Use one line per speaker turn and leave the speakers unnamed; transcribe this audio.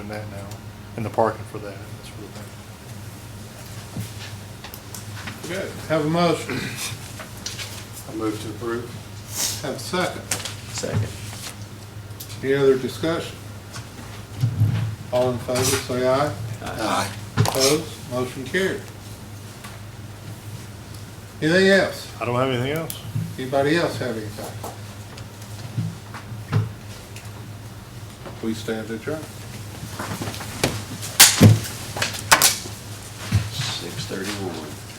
in that now, and the parking for that, that sort of thing.
Okay, have a motion,
I move to approve.
have a second.
Second.
Any other discussion? All in favor, say aye.
Aye.
Opposed, motion carried. Anything else?
I don't have anything else.
Anybody else have anything? We stand adjourned.
Six thirty-one.